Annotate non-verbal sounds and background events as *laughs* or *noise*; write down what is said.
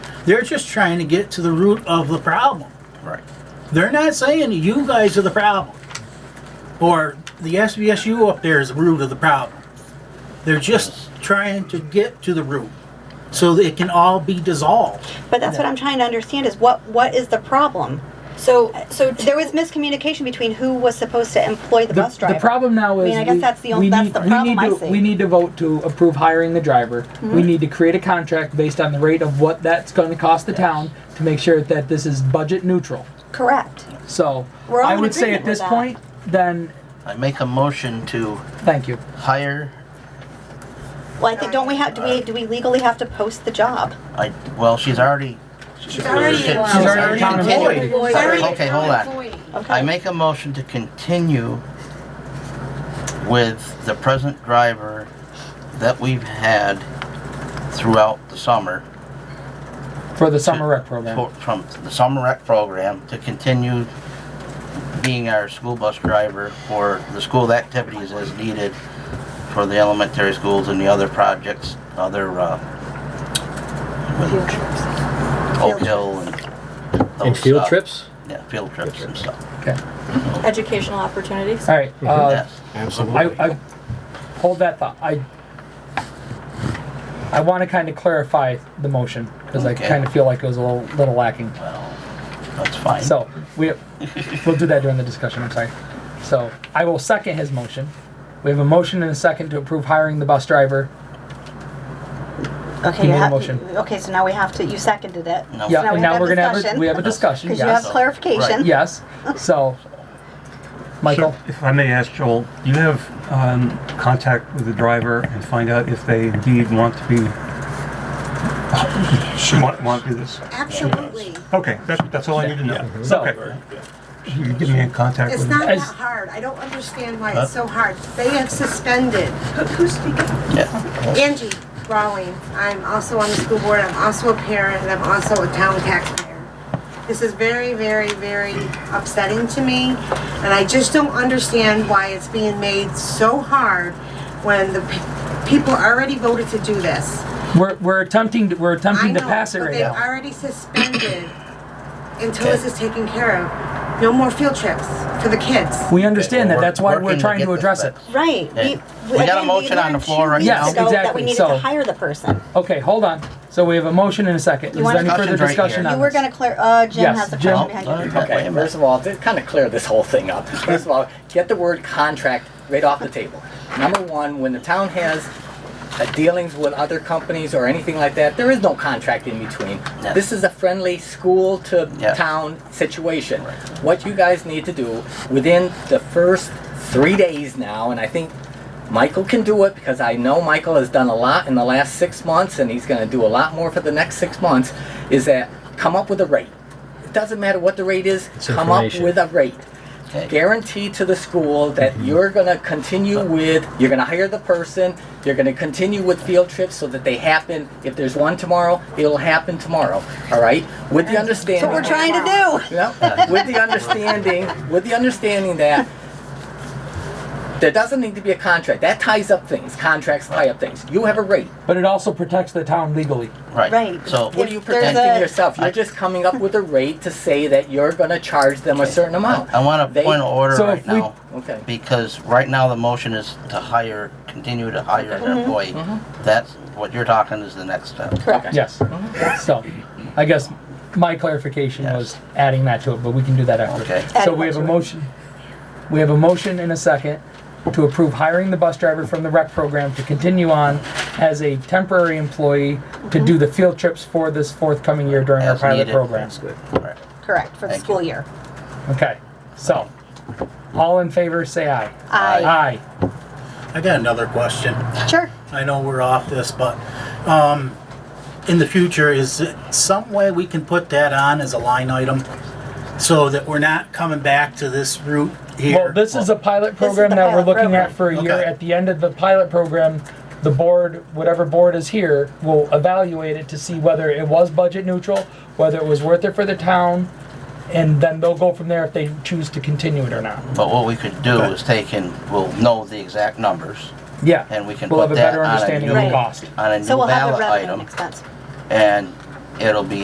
They're just trying to get to the root of the problem. Right. They're not saying you guys are the problem or the SBSU up there is the root of the problem. They're just trying to get to the root so that it can all be dissolved. But that's what I'm trying to understand is what what is the problem? So So there was miscommunication between who was supposed to employ the, The, bus driver. the problem now I is mean, I guess we- that's the we only that's need- the we problem need I to- see. Mm-hmm. We need to vote to approve hiring the driver. We need to create a contract based on the rate of what that's going to cost the town to make sure that this is budget neutral. Correct. So We're all I in would say agreement at this with that. point, then I make a motion to thank you. hire, Well, I think don't we have do we do we legally have to post the job? I, well, she's already, she's already She's allowed. already employed. She's already Okay, an hold on. employee. Okay. I make a motion to continue with the present driver that we've had throughout the summer. For the summer rec program. for- From the summer rec program to continue being our school bus driver for the school activities as needed for the elementary schools and the other projects, other, uh, Oak Hill and those. And field uh, trips? Yeah, field trips and stuff, Okay. Educational opportunities. All right. Uh, yes. I, Absolutely. I hold that thought. I I want to kind of clarify the motion because Okay. I kind of feel like it was a little, little lacking. Well, that's fine. So we we'll do that during the discussion. I'm sorry. So I will second his motion. We have a motion and a second to approve hiring the bus driver. Okay, You you made a have motion. okay, so now we have to you seconded it. No. Yeah, Oh. Now we and have now to have we're gonna have discussion. a, we have a discussion. Because yes. you have Right. clarification. *laughs* yes. So Michael, So, If I may ask Joel, do you have um, contact with the driver and find out if they indeed want to be, She want, want to do this? Absolutely. Okay, that's, that's all I need to know. So- Okay. You can get me in contact It's with not them. As- that hard. I don't understand why it's so hard. They have suspended, who's speaking? Yeah, Angie Rawling. I'm also on the school board. I'm also a parent and I'm also a town taxpayer. This is very, very, very upsetting to me. And I just don't understand why it's being made so hard when the pe- people already voted to do this. we're, we're attempting to, we're attempting I to know, pass it but right they've now. already suspended *coughs* until this is taken care of. No more field trips for the kids. We understand that. That's why we're Working to trying get to this address it. fixed. Right. Yeah. We got a again, motion on learned the floor two right weeks now. ago That Exactly, we needed so- to hire the person. Okay, hold on. So we have a motion and a second. Is wanna- there any further Discussion's right discussion here. You on were this? gonna clear, uh, Jim Yes, has the Jim. question behind you. Okay, wait Okay, a first minute. of all, to kind of clear this whole thing up, first of all, get the word contract right off the table. Number one, when the town has uh, dealings with other companies or anything like that, there is no contract in between. Yes. This is a friendly school to Yes. town situation. What you guys need to do within the first three days now, and I think Michael can do it because I know Michael has done a lot in the last six months and he's going to do a lot more for the next six months, is that come up with a rate. It doesn't matter what the rate is, It's come up information. Mm-hmm. with a rate. Okay. Guarantee to the school that you're going to continue with, you're going to hire the person, you're going to continue with field trips so that they happen. If there's one tomorrow, it'll happen tomorrow, all right? With the understanding. That's what we're trying to do. Yeah, with the understanding, with the understanding that there doesn't need to be a contract. That ties up things. Contracts tie up things. You have a rate. But it also protects the town legally. right. Right. So, What are you If there's protecting a- yourself? You're just coming up with a rate to say that you're gonna charge them a certain amount. I want a They- point of order So right if we- now, Okay. because right now the motion is to hire, continue to hire an employee. That's, what you're talking is the next step. Correct. Yes. So, I guess my clarification Yes. was adding that to it, but we can do that after. Okay. So we have a motion, we have a motion and a second to approve hiring the bus driver from the rec program to continue on as a temporary employee to do the field trips for this forthcoming year during our As pilot needed. program. Right. Correct, for the Thank you. school year. Okay, so, all in favor, say aye. I, Aye. I got another question. Uh, sure. I know we're off this, but um, in the future, is it some way we can put that on as a line item so that we're not coming back to this route here? Well, this is a pilot is program the that we're pilot looking at program. for a year. Okay. At the end of the pilot program, the board, whatever board is here, will evaluate it to see whether it was budget neutral, whether it was worth it for the town, and then they'll go from there if they choose to continue it or not. But what we could do is take in, we'll know the exact numbers Yeah. and we can We'll put have a that better on a understanding of new- the cost. on a new So we'll have the ballot revenue and item expense. and it'll be